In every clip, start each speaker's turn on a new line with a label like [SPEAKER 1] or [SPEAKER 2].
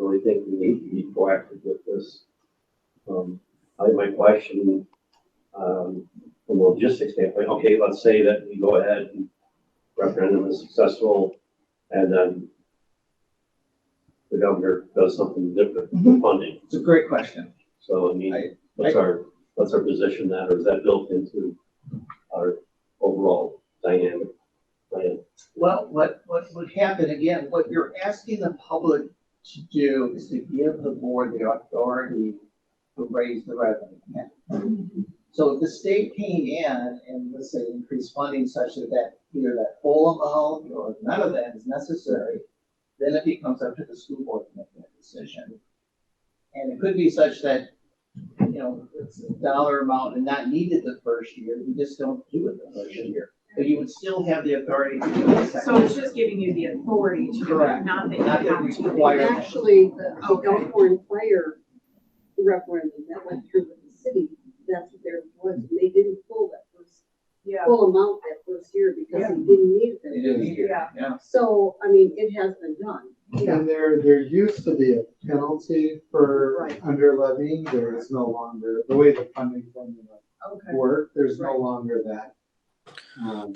[SPEAKER 1] really think we need to be proactive with this. Um, I think my question, um, from a logistics standpoint, okay, let's say that we go ahead and referendum is successful and then the governor does something different with
[SPEAKER 2] Mhm.
[SPEAKER 1] funding.
[SPEAKER 2] It's a great question.
[SPEAKER 1] So, I mean,
[SPEAKER 2] I-
[SPEAKER 1] what's our, what's our position that, or is that built into our overall dynamic plan?
[SPEAKER 2] Well, what, what would happen, again, what you're asking the public to do is to give the board the authority to raise the revenue. cap. So if the state came in and let's say increased funding such that that, either that full amount or none of that is necessary, then it becomes up to the school board to make that decision. And it could be such that, you know, it's a dollar amount and not needed the first year, you just don't do it the first year. But you would still have the authority to do it the
[SPEAKER 3] So
[SPEAKER 2] second
[SPEAKER 3] it's
[SPEAKER 2] year.
[SPEAKER 3] just giving you the authority to do it,
[SPEAKER 2] Correct.
[SPEAKER 3] not that you
[SPEAKER 2] Not
[SPEAKER 3] have
[SPEAKER 2] that we
[SPEAKER 3] to.
[SPEAKER 2] require-
[SPEAKER 3] Exactly.
[SPEAKER 4] Actually, the oh,
[SPEAKER 3] Okay.
[SPEAKER 4] Elkhorn Fire referendum that went through with the city, that's what theirs was, and they didn't pull that first,
[SPEAKER 3] Yeah,
[SPEAKER 4] full amount that first year because they didn't need
[SPEAKER 2] They
[SPEAKER 4] it.
[SPEAKER 2] do it here,
[SPEAKER 3] Yeah.
[SPEAKER 2] yeah.
[SPEAKER 4] So, I mean, it has been done.
[SPEAKER 5] And there, there used to be a penalty for
[SPEAKER 4] Right.
[SPEAKER 5] under levying, there is no longer, the way the funding formula
[SPEAKER 3] okay.
[SPEAKER 5] worked, there's no
[SPEAKER 3] Right.
[SPEAKER 5] longer that. um,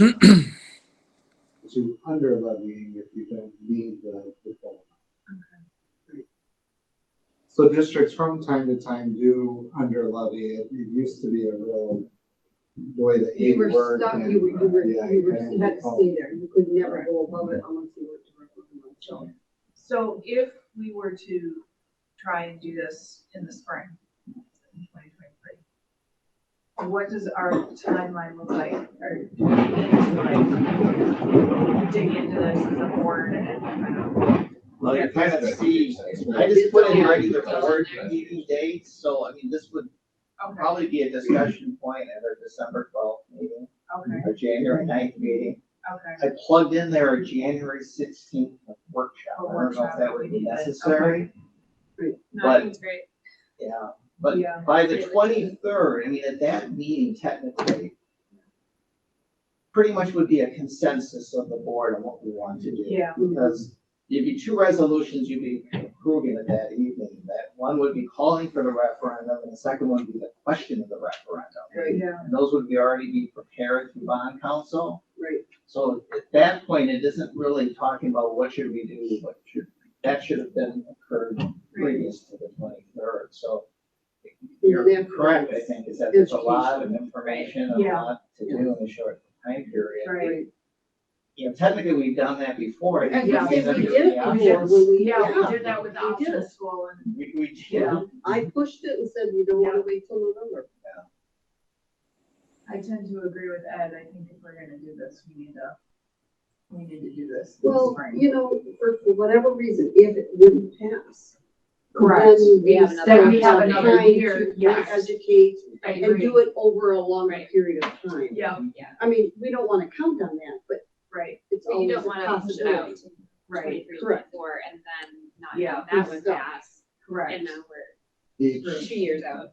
[SPEAKER 5] To under levying if you don't need the, the full amount. So districts from time to time do under levy, it it used to be a real, the way the
[SPEAKER 4] You
[SPEAKER 5] aid
[SPEAKER 4] were
[SPEAKER 5] worked.
[SPEAKER 4] stuck,
[SPEAKER 5] and- uh,
[SPEAKER 4] you were, you were,
[SPEAKER 5] yeah,
[SPEAKER 4] you were,
[SPEAKER 5] and-
[SPEAKER 4] you had to stay there, you could never go above it unless you were directly on the show.
[SPEAKER 3] So if we were to try and do this in the spring, in twenty twenty-three, what does our timeline look like? Or do we need to, like, dig into this as a board and, I don't know.
[SPEAKER 2] Well, you kind of see, I
[SPEAKER 4] It's
[SPEAKER 2] just put in
[SPEAKER 4] all-
[SPEAKER 2] regular
[SPEAKER 4] it's all
[SPEAKER 2] board
[SPEAKER 4] there.
[SPEAKER 2] meeting dates, so I mean, this would
[SPEAKER 3] okay,
[SPEAKER 2] probably be a discussion point at our December twelfth meeting,
[SPEAKER 3] okay,
[SPEAKER 2] our January 9th meeting.
[SPEAKER 3] okay.
[SPEAKER 2] I plugged in there a January sixteenth workshop, I
[SPEAKER 3] A
[SPEAKER 2] don't know if
[SPEAKER 3] workshop,
[SPEAKER 2] that would be
[SPEAKER 3] we need it, okay.
[SPEAKER 2] necessary,
[SPEAKER 3] No, I
[SPEAKER 2] But-
[SPEAKER 3] think it's great.
[SPEAKER 2] yeah. But
[SPEAKER 3] Yeah.
[SPEAKER 2] by the twenty-third, I mean, at that meeting technically, pretty much would be a consensus of the board on what we want to do.
[SPEAKER 3] Yeah,
[SPEAKER 2] Because there'd be two resolutions you'd be approving at that evening, that one would be calling for the referendum, and the second one would be the question of the referendum.
[SPEAKER 4] Right,
[SPEAKER 3] yeah,
[SPEAKER 2] And those would be already be prepared through bond council,
[SPEAKER 4] right.
[SPEAKER 2] so at that point, it isn't really talking about what should we do, what should, that should have been occurred previous to the twenty-third, so. You're correct, I think, is that there's a lot of information, a
[SPEAKER 3] Yeah.
[SPEAKER 2] lot to do in a short time period.
[SPEAKER 3] right.
[SPEAKER 2] You know, technically, we've done that before. I think
[SPEAKER 3] And
[SPEAKER 2] we've
[SPEAKER 4] Yes,
[SPEAKER 2] given
[SPEAKER 4] we
[SPEAKER 2] you
[SPEAKER 4] did
[SPEAKER 2] the
[SPEAKER 4] it
[SPEAKER 2] option.
[SPEAKER 4] before when we,
[SPEAKER 3] Yeah, we
[SPEAKER 4] yeah,
[SPEAKER 3] did that with the
[SPEAKER 4] We did
[SPEAKER 3] optional
[SPEAKER 4] it.
[SPEAKER 3] school and,
[SPEAKER 2] We, we did.
[SPEAKER 3] yeah,
[SPEAKER 4] I pushed it and said, you don't wanna wait till November.
[SPEAKER 3] I tend to agree with Ed, I think if we're gonna do this, we need to, we need to do this in the
[SPEAKER 4] Well,
[SPEAKER 3] spring.
[SPEAKER 4] you know, for, for whatever reason, if it wouldn't pass. Then
[SPEAKER 3] We
[SPEAKER 4] we
[SPEAKER 3] have
[SPEAKER 4] spend
[SPEAKER 3] another, we have
[SPEAKER 4] time
[SPEAKER 3] another
[SPEAKER 4] to
[SPEAKER 3] year, yes.
[SPEAKER 4] Educate
[SPEAKER 3] I
[SPEAKER 4] and do
[SPEAKER 3] agree,
[SPEAKER 4] it over a longer
[SPEAKER 3] Right.
[SPEAKER 4] period of time.
[SPEAKER 3] yeah,
[SPEAKER 4] I mean, we don't wanna count on that, but
[SPEAKER 3] right,
[SPEAKER 4] it's
[SPEAKER 6] But you
[SPEAKER 4] always a
[SPEAKER 6] don't wanna push it out
[SPEAKER 4] possibility.
[SPEAKER 6] to
[SPEAKER 3] right,
[SPEAKER 6] twenty-three,
[SPEAKER 4] Correct.
[SPEAKER 6] twenty-four, and then not
[SPEAKER 3] Yeah,
[SPEAKER 6] have that one
[SPEAKER 4] stuck.
[SPEAKER 6] pass, and uh,
[SPEAKER 3] correct.
[SPEAKER 6] now
[SPEAKER 5] Each
[SPEAKER 6] we're two years out.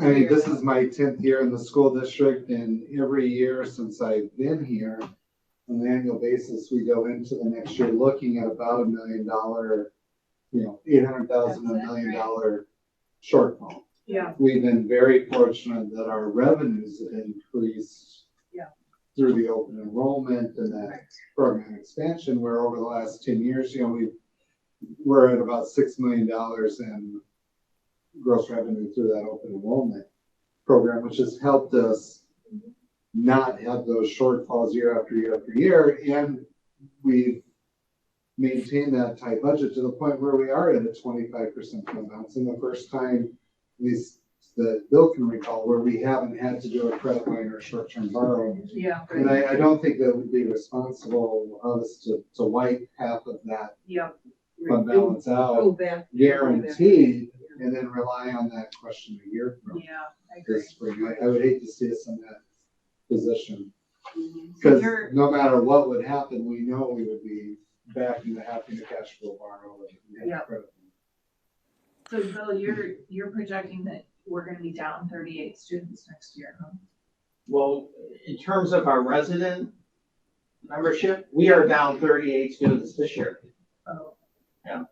[SPEAKER 5] I mean, this is my tenth year in the school district and every year since I've been here, on an annual basis, we go into the next year looking at about a million dollar, you know, eight hundred thousand, a
[SPEAKER 6] That's it,
[SPEAKER 5] million
[SPEAKER 6] right.
[SPEAKER 5] dollar shortfall.
[SPEAKER 3] Yeah.
[SPEAKER 5] We've been very fortunate that our revenues have increased
[SPEAKER 3] Yeah.
[SPEAKER 5] through the open enrollment and that program expansion, where over the last ten years, you know, we, we're at about six million dollars in gross revenue through that open enrollment program, which has helped us not have those shortfalls year after year after year, and we've maintained that tight budget to the point where we are at a twenty-five percent fund balance, and the first time, at least that Bill can recall, where we haven't had to do a credit line or short-term borrowing
[SPEAKER 3] Yeah,
[SPEAKER 5] and I, I don't think that would be responsible of us to, to wipe half of that
[SPEAKER 3] yeah,
[SPEAKER 5] fund
[SPEAKER 4] Right.
[SPEAKER 5] balance out
[SPEAKER 4] Go back.
[SPEAKER 5] guaranteed and then rely on that question a year from
[SPEAKER 3] yeah, I agree.
[SPEAKER 5] this spring. I, I would hate to see us in that position.
[SPEAKER 4] Mhm.
[SPEAKER 3] Mm-hmm. So
[SPEAKER 5] Cause
[SPEAKER 3] you're-
[SPEAKER 5] no matter what would happen, we know we would be back into having to cash flow borrow. and get
[SPEAKER 3] Yeah.
[SPEAKER 5] credit.
[SPEAKER 3] So Bill, you're, you're projecting that we're gonna be down thirty-eight students next year, huh?
[SPEAKER 2] Well, in terms of our resident membership, we are down thirty-eight students this year.
[SPEAKER 3] Oh,
[SPEAKER 2] Yeah.